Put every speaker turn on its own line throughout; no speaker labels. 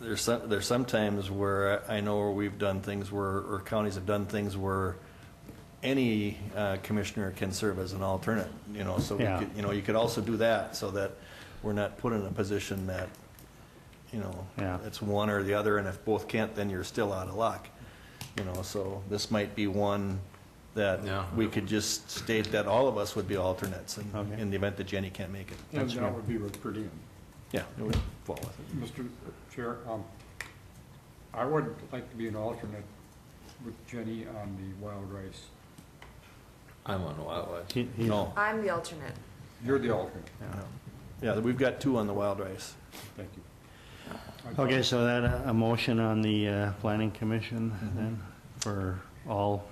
There's some, there's some times where I know where we've done things where, or counties have done things where any uh, commissioner can serve as an alternate, you know, so we
Yeah.
could, you know, you could also do that so that we're not put in a position that, you know,
Yeah.
it's one or the other, and if both can't, then you're still out of luck. You know, so this might be one that
Yeah.
we could just state that all of us would be alternates in,
Okay.
in the event that Jenny can't make it.
And
That's
that
right.
would be with per diem.
Yeah, it would fall with it.
Mr. Chair, um, I would like to be an alternate with Jenny on the wild rice.
I'm on wildlife.
He- he-
No.
I'm the alternate.
You're the alternate,
yeah.
Yeah, we've got two on the wild rice.
thank you. I thought-
Okay, so that, uh, a motion on the uh, planning commission then for all,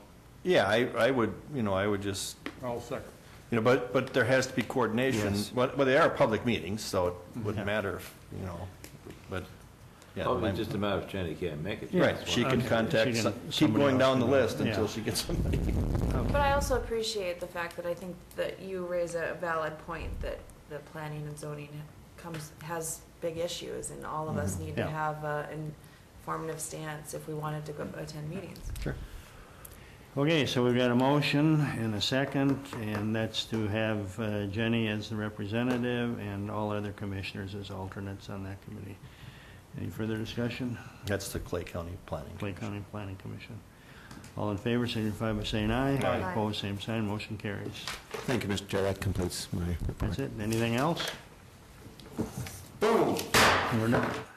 Yeah, I, I would, you know, I would just,
I'll second.
you know, but, but there has to be coordination.
Yes. Mm-hmm.
Well, well, they are public meetings, so it wouldn't matter, if, you know, but, yeah.
Probably
my-
Oh, just a matter of Jenny can't make it.
Right,
That's
she
why.
can
Okay,
contact,
she can-
some- keep
somebody
going
else
down
can
the
do it.
list until
Yeah.
she gets somebody.
But I also appreciate the fact that I think that you raise a valid point that the planning and zoning comes, has big issues and all of us need to
Yeah.
have an informative stance if we wanted to go attend meetings.
okay, so we've got a motion and a second, and that's to have uh, Jenny as the representative and all other commissioners as alternates on that committee. Any further discussion?
That's the Clay County Planning.
Clay County Planning Commission. All in favor, signify by saying aye.
Aye. Aye.
Opposed, same sign, motion carries.
Thank you, Mr. Chair. That completes my report.
That's it. Anything else? Boom! We're done.